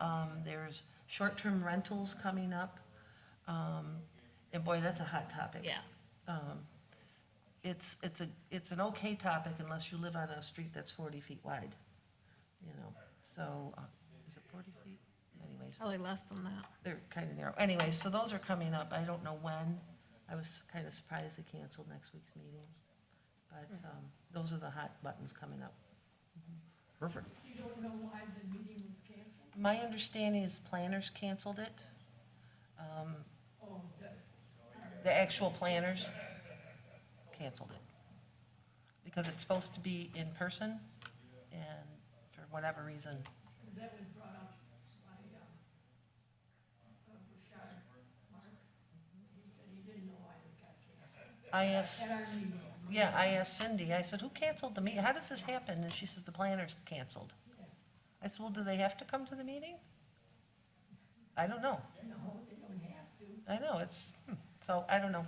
Um, There's short-term rentals coming up. Um, And boy, that's a hot topic. Yeah, It's, it's a, it's an okay topic unless you live on a street that's 40 feet wide, you know? So, uh, is it 40 feet? Anyways, probably less than that. they're kind of narrow. Anyway, so those are coming up. I don't know when. I was kind of surprised they canceled next week's meeting. But Mm-hmm. um, those are the hot buttons coming up. Perfect. You don't know why the meeting was canceled? My understanding is planners canceled it. Um, Oh, the, The actual planners canceled it. Because it's supposed to be in person, and for whatever reason, because that was brought up by, um, uh, Bouchard, Mark. He said he didn't know why they got canceled. I asked, At our meeting, yeah, I asked Cindy, I said, who canceled the meeting? How does this happen? And she says, the planners canceled. I said, well, do they have to come to the meeting? I don't know. no, they don't have to, I know, it's, hmm, so, I don't know,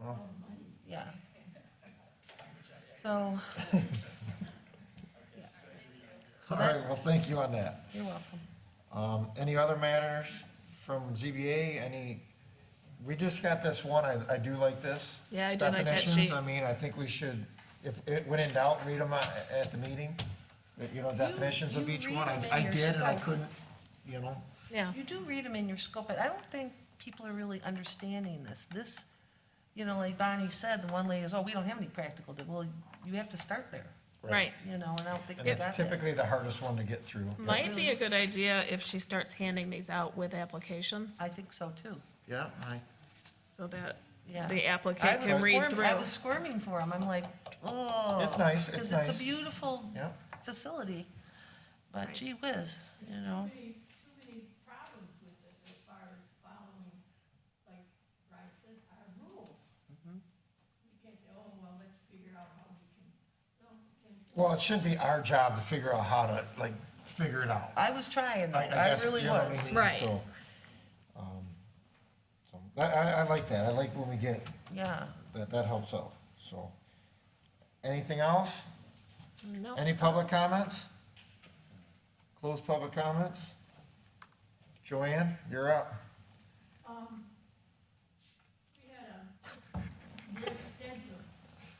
Well, yeah. So, all right, well, thank you on that. you're welcome. Um, any other matters from ZBA, any, we just got this one, I, I do like this. Yeah, I do like that Definitions, sheet. I mean, I think we should, if, it when in doubt, read them at, at the meeting, But, you know, definitions of you each read one, I, them in I your did, and I scope. couldn't, you know, Yeah, You do read them in your scope, but I don't think people are really understanding this. This, you know, like Bonnie said, the one lady is, oh, we don't have any practical, di-" well, you have to start there, right. you know, and I don't think and they it's got that. typically the hardest one to get through. Might be a good idea if she starts handing these out with applications, I think so too, Yeah, I, so that yeah. the I applicant was can read squirm- through. I was squirming for them, I'm like, oh. It's nice, it's Because nice. it's a beautiful yeah, facility, but gee whiz, you know, Too many- too many problems with this as far as following, like Brian says, our rules. You can't say, oh, well, let's figure out how we can, no, we can't. well, it should be our job to figure out how to, like, figure it out. I was trying, I- I that. I guess, really you know what I was. mean? Right. So, um, so, I, I, I like that, I like when we get, Yeah, that, that helps out, so. Anything else? No, Any public comments? Closed public comments? Joanne, you're up. Um, we had a very extensive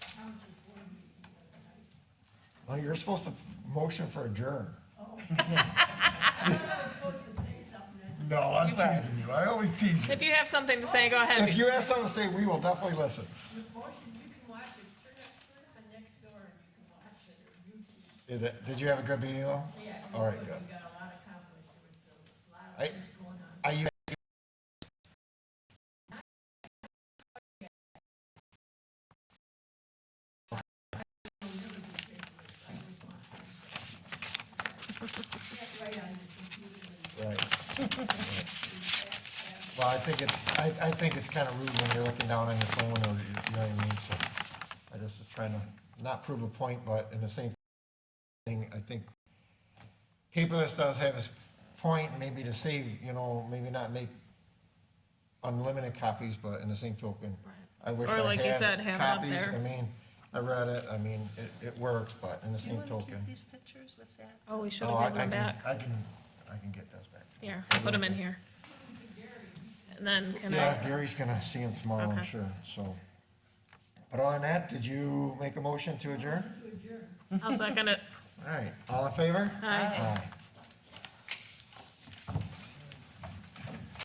county board meeting the other night. Well, you're supposed to motion for adjourn. I thought I was supposed to say something, I said, No, I'm You are. you, I always tease if you have something to say, Oh, go If ahead. you have something to say, we will definitely listen. the motion, you can watch it, turn it, turn it on next door and you can watch it, or YouTube. Is it, did you have a good meeting though? Yeah, it All was right, good. good. we got a lot accomplished, there was a lot of I- things going on. Are you? Right. Well, I think it's, I, I think it's kind of rude when you're looking down on your phone or, you you know what I mean, so. I just was trying to not prove a point, but in the same thing, I think Capeless does have his point, maybe to save, you know, maybe not make unlimited copies, but in the same token, I wish Or I like you had said, have it up copies. there. I mean, I read it, I mean, it, it works, but in the do you same want to token. keep these pictures with that? Oh, we should Oh, have I- I given them can- back. I can, I can get those back. Here, I'll put them in here. And then can Yeah, I, Gary's gonna see him tomorrow, I'm Okay. sure, so. But other than that, did you make a motion to adjourn? I'll second it. All right, all in favor? Aye. Aye.